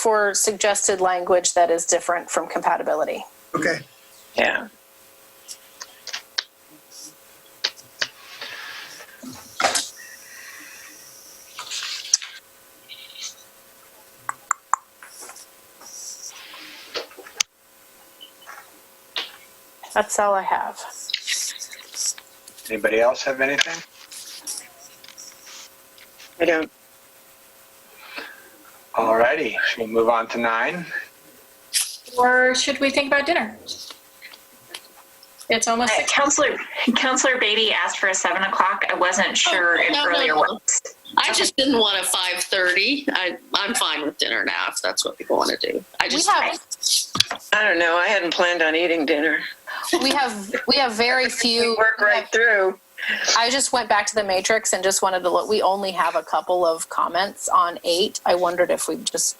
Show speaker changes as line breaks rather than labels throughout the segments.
for suggested language that is different from compatibility.
Okay.
Yeah.
That's all I have.
Anybody else have anything?
I don't.
Alrighty, should we move on to nine?
Or should we think about dinner? It's almost
Uh,
six.
Counselor, Counselor Beatty asked for a seven o'clock. I wasn't sure if
no, no,
earlier
no.
was.
I just didn't want a five thirty. I I'm fine with dinner now if that's what people want to do. I
We
just
have
I don't know. I hadn't planned on eating dinner.
we have we have very
We
few.
work right through.
I just went back to the matrix and just wanted to look. We only have a couple of comments on eight. I wondered if we just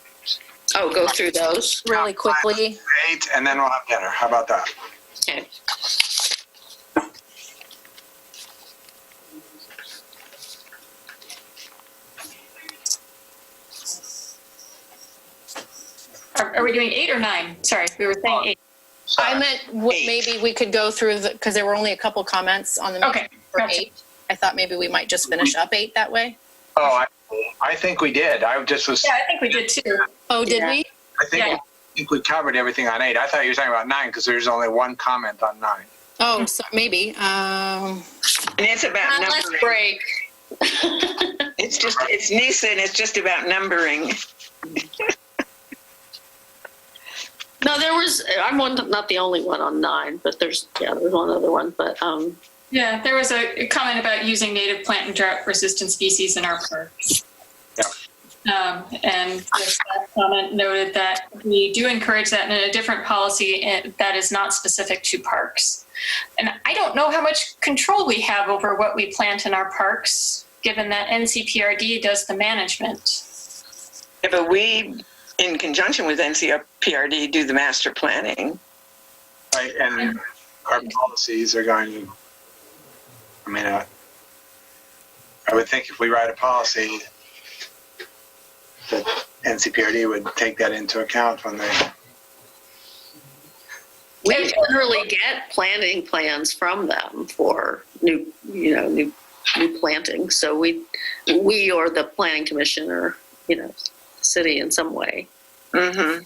oh go through those.
really quickly.
Eight, and then we'll have dinner. How about that?
Okay.
Are, are we doing eight or nine? Sorry, we were saying eight.
I meant w-
Uh, Eight.
maybe we could go through the because there were only a couple comments on the
Okay,
for
gotcha.
eight. I thought maybe we might just finish up eight that way.
Oh, I, I think we did. I just was,
Yeah,
I
I think we did too.
Oh, did
Yeah.
we?
think,
yeah.
I think we covered everything on eight. I thought you were talking about nine because there's only one comment on nine.
Oh, so maybe. Um,
And it's about
let's
numbering.
break.
It's just, it's Nisa and it's just about numbering.
No, there was I'm one not the only one on nine, but there's yeah, there's one other one. But um
Yeah, there was a comment about using native plant and drought resistant species in our parks.
Yeah.
Um, and the staff comment noted that we do encourage that in a different policy eh, that is not specific to parks. And I don't know how much control we have over what we plant in our parks, given that NCPRD does the management.
Yeah, but we, in conjunction with NCPRD, do the master planning.
Right, and our policies are going to, I mean, uh, I would think if we write a policy, that NCPRD would take that into account when they,
we generally get planting plans from them for new you know, new new planting. So we we or the planning commission or, you know, city in some way.
Mm-hmm.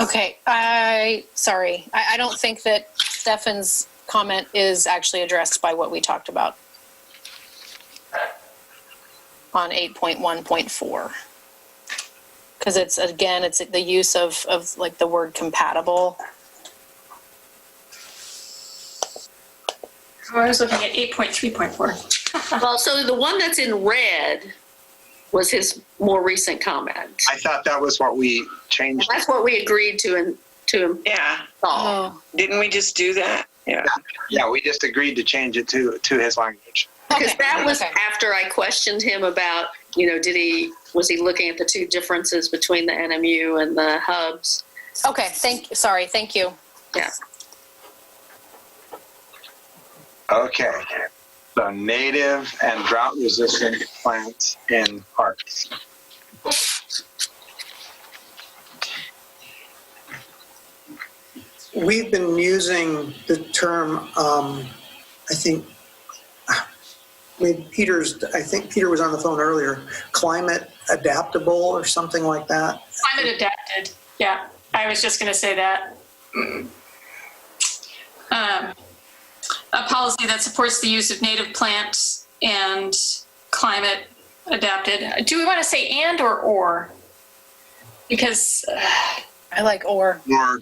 okay. I sorry. I, I don't think that Stefan's comment is actually addressed by what we talked about on eight point one point four. Because it's again, it's the use of of like the word compatible.
I was looking at 8.3.4.
Uh-huh.
Well, so the one that's in red was his more recent comment.
I thought that was what we changed.
That's what we agreed to and to
Yeah.
Oh,
install.
Didn't we just do that? Yeah.
Yeah, we just agreed to change it to, to his language.
Because that was
okay.
after I questioned him about, you know, did he, was he looking at the two differences between the NMU and the hubs?
Okay, thank. Sorry, thank you.
Okay, so native and drought resistant plants in parks.
we've been using the term, um, I think, I mean, Peter's, I think Peter was on the phone earlier, climate adaptable or something like that.
Climate adapted. Yeah, I was just going to say that. Um, a policy that supports the use of native plants and climate adapted. Do we want to say and or or? Because uh,
I like or.
Or,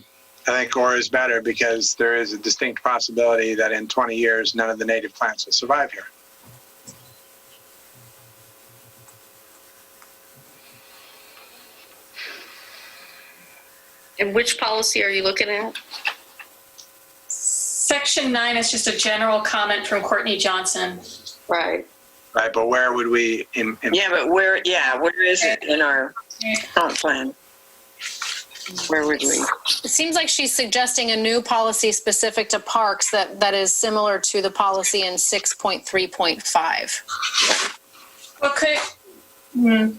I think or is better because there is a distinct possibility that in 20 years, none of the native plants will survive here.
And which policy are you looking at?
section nine is just a general comment from Courtney Johnson.
Right.
Right, but where would we? Im- im-
Yeah, but where, yeah, where is it in our comp plan? Where would we?
It seems like she's suggesting a new policy specific to parks that, that is similar to the policy in 6.3.5.
Well, could, hmm,